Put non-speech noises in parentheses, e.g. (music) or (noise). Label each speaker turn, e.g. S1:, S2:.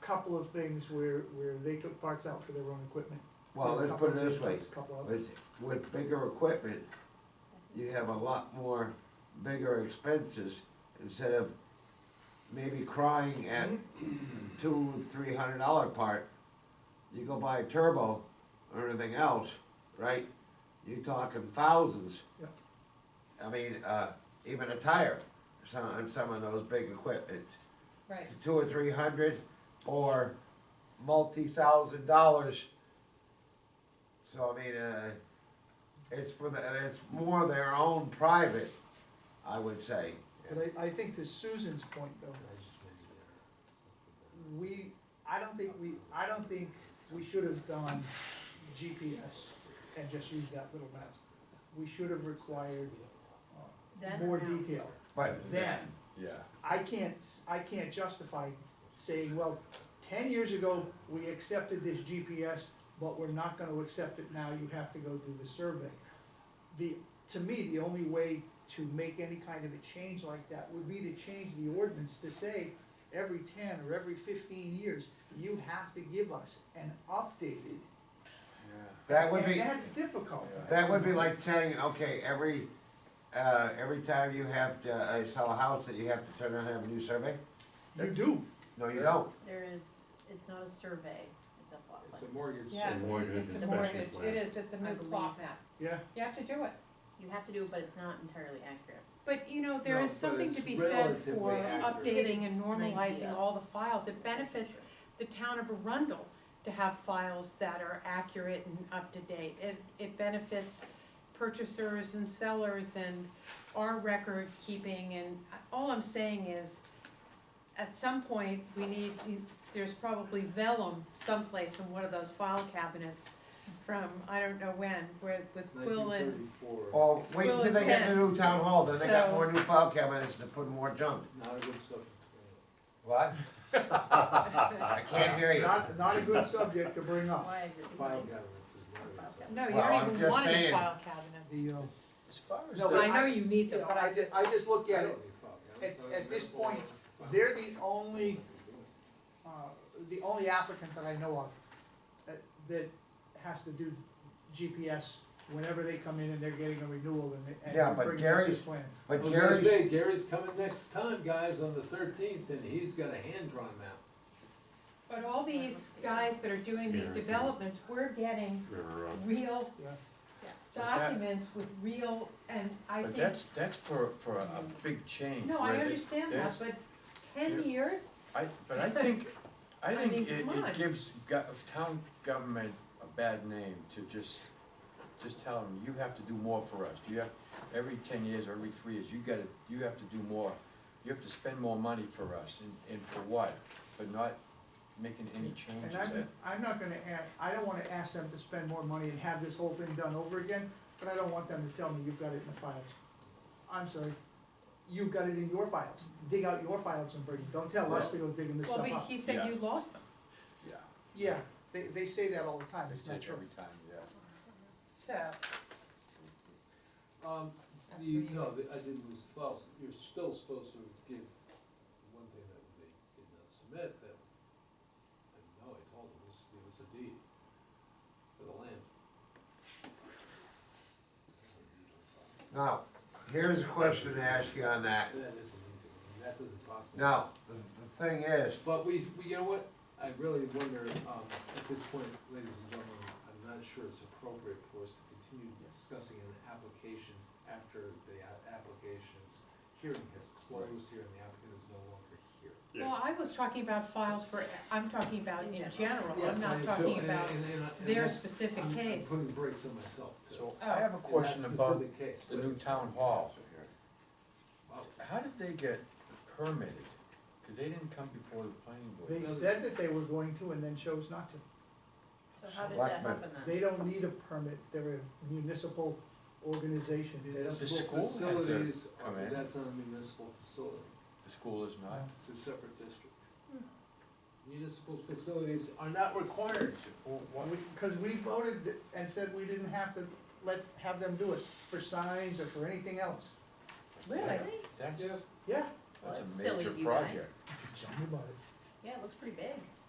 S1: couple of things where, where they took parts out for their own equipment. There
S2: Well,
S1: were a
S2: let's
S1: couple
S2: put it
S1: of
S2: this way,
S1: vehicles, couple of-
S2: with, with bigger equipment, you have a lot more bigger expenses instead of maybe crying at two, three hundred dollar part. You go buy a turbo or anything else, right? You're talking thousands.
S1: Yeah.
S2: I mean, uh, even a tire, some, on some of those big equipment
S3: Right,
S2: to two or three hundred or multi-thousand dollars. So I mean, uh, it's for the, it's more their own private, I would say.
S1: But I, I think to Susan's point though, we, I don't think we, I don't think we should have done GPS and just used that little map. We should have required
S3: Then or
S1: more
S3: now?
S1: detail.
S2: But
S1: Then,
S4: Yeah.
S1: I can't, s- I can't justify saying, well, ten years ago, we accepted this GPS, but we're not gonna accept it now, you have to go do the survey. The, to me, the only way to make any kind of a change like that would be to change the ordinance to say, every ten or every fifteen years, you have to give us an updated.
S2: that would
S1: And
S2: be,
S1: that's difficult.
S2: that would be like saying, okay, every, uh, every time you have to, uh, sell a house that you have to turn around and have a new survey?
S1: You do,
S2: No, you don't.
S5: There is, it's not a survey, it's a plot plan.
S4: It's a mortgage.
S3: yeah.
S6: A mortgage
S3: It's a
S6: inspection
S3: mortgage,
S6: plan.
S3: it is, it's a
S5: I
S3: new
S5: believe.
S3: plot map.
S1: yeah,
S3: You have to do it.
S5: You have to do it, but it's not entirely accurate.
S3: But, you know, there
S4: No,
S3: is
S4: but
S3: something
S4: it's
S3: to be said for
S4: relatively accurate.
S3: updating and normalizing
S5: idea.
S3: all the files. It benefits the town of Arundel to have files that are accurate and up to date. It, it benefits purchasers and sellers and our record keeping and all I'm saying is at some point, we need, there's probably vellum someplace in one of those file cabinets from, I don't know when, where with Quill and,
S4: Nineteen
S1: Oh.
S4: thirty-four.
S2: Or wait till they get the new town hall, then they got
S3: So-
S2: more new file cabinets to put more junk.
S4: Not a good subject.
S2: What? I can't hear you.
S1: not, not a good subject to bring up.
S5: Why is it?
S4: File cabinets is not a good
S3: (laughs)
S4: subject.
S3: no, you
S2: Well,
S3: don't
S2: I'm
S3: even
S2: just
S3: want any
S2: saying.
S3: file cabinets.
S1: The, uh,
S6: As far as
S1: No,
S6: the-
S1: but
S3: I know you need them, but I
S1: ju-
S3: just,
S1: I just look
S4: I
S1: at
S4: don't
S1: it,
S4: need file cabinets.
S1: at-
S4: I
S1: at this
S4: don't need
S1: point,
S4: file
S1: they're the
S4: cabinets.
S1: only uh, the only applicant that I know of that, that has to do GPS whenever they come in and they're getting a renewal and they,
S2: Yeah,
S1: and
S2: but
S1: bring us
S2: Gary's-
S1: his plan.
S4: I
S2: But
S4: was gonna
S2: Gary's.
S4: say, Gary's coming next time, guys, on the thirteenth, and he's got a hand-drawn map.
S3: but all these guys that are doing these
S6: Yeah.
S3: developments, we're getting
S6: River Road.
S3: real
S1: Yeah.
S6: But that-
S3: documents with real, and I
S6: But
S3: think,
S6: that's, that's for, for a a big change.
S3: no, I
S6: where it-
S3: understand that,
S6: there's-
S3: but ten
S6: Yeah.
S3: years?
S6: I, but I think, I
S3: I mean,
S6: think it,
S3: come on.
S6: it gives go- town government a bad name to just, just tell them, you have to do more for us. You have, every ten years, or every three years, you gotta, you have to do more. You have to spend more money for us, and, and for what? But not making any changes.
S1: And I'm, I'm not gonna ask, I don't wanna ask them to spend more money and have this whole thing done over again, but I don't want them to tell me you've got it in the files. I'm sorry, you've got it in your files, dig out your files and bring it, don't tell us to go digging this
S3: Well,
S1: stuff
S3: but
S1: up.
S3: he said
S6: Yeah.
S3: you lost them,
S6: Yeah,
S1: Yeah, they, they say that all the time,
S6: it's
S1: it's not
S6: every
S1: true.
S6: time, yeah.
S3: so,
S4: Um,
S3: That's
S4: the,
S3: pretty
S4: no, the- I didn't lose the files, you're still supposed to give one thing that they did not submit, that, I know, I told them, was give us a deed for the land.
S2: Now, here's a question to ask you on that.
S4: That is an easy one, that doesn't cost us.
S2: Now, the, the thing is,
S4: But we, we, you know what, I really wonder, um, at this point, ladies and gentlemen, I'm not sure it's appropriate for us to continue discussing an application after the a- application's hearing has closed here and the applicant is no longer here.
S3: well, I was talking about files for, I'm talking about
S5: In
S3: in general,
S5: general.
S3: I'm
S4: Yes, I
S3: not
S4: am too,
S3: talking
S4: and-
S3: about
S4: and- and I- and
S3: their
S4: that's-
S3: specific
S4: I'm-
S3: case.
S4: I'm putting brakes on myself too.
S6: So I
S4: Oh.
S6: have a question
S4: In that
S6: about
S4: specific case,
S6: the
S4: but- uh,
S6: new town hall.
S4: Wow.
S6: How did they get permitted? Cause they didn't come before the planning board.
S1: They said that they were going to and then chose not to.
S5: So how did that
S2: Selectmen.
S5: happen then?
S1: They don't need a permit, they're a municipal organization, they don't,
S6: The
S4: Municipal
S6: school had to
S4: facilities, are-
S6: come in.
S4: that's not a municipal facility.
S6: The school is not.
S4: It's a separate district. Municipal facilities are not required to.
S6: Well, why-
S1: because we voted th- and said we didn't have to let, have them do it for signs or for anything else.
S3: really,
S6: That's,
S4: Yeah.
S1: Yeah,
S5: Well, that's
S6: that's a
S5: silly
S6: major
S5: of you guys.
S6: project.
S1: tell me about it.
S5: Yeah, it looks pretty big.